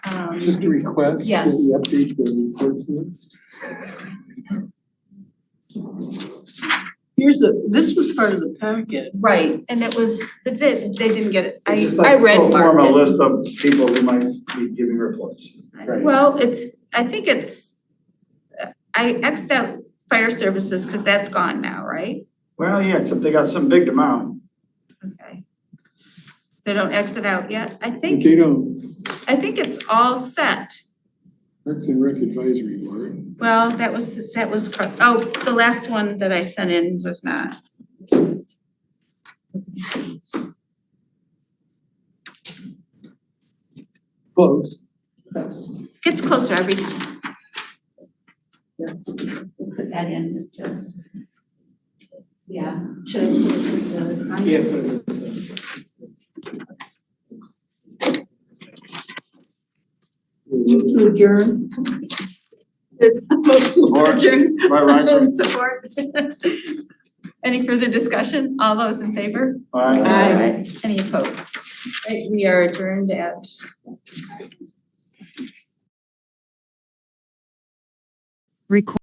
Um, Just a request that Yes. we update the reports minutes. Here's the, this was part of the packet. Right, and it was, they, they didn't get it, I, It's just I like read pro part forma of it. list of people who might be giving reports. Right. Well, it's, I think it's, I Xed out fire services because that's gone now, right? Well, yeah, except they got some big amount. Okay. So don't X it out yet. I But think, they don't, I think it's all set. Parks and Rec Advisory Board. Well, that was, that was, cor- oh, the last one that I sent in was not. Close. Gets closer every time. Put that in, to- yeah, to, the sign. Move adjourn. There's a motion to adjourn. Right, right, so- Support. Any further discussion? All those in favor? All right. Aye. Any opposed? Right, we are adjourned at Record.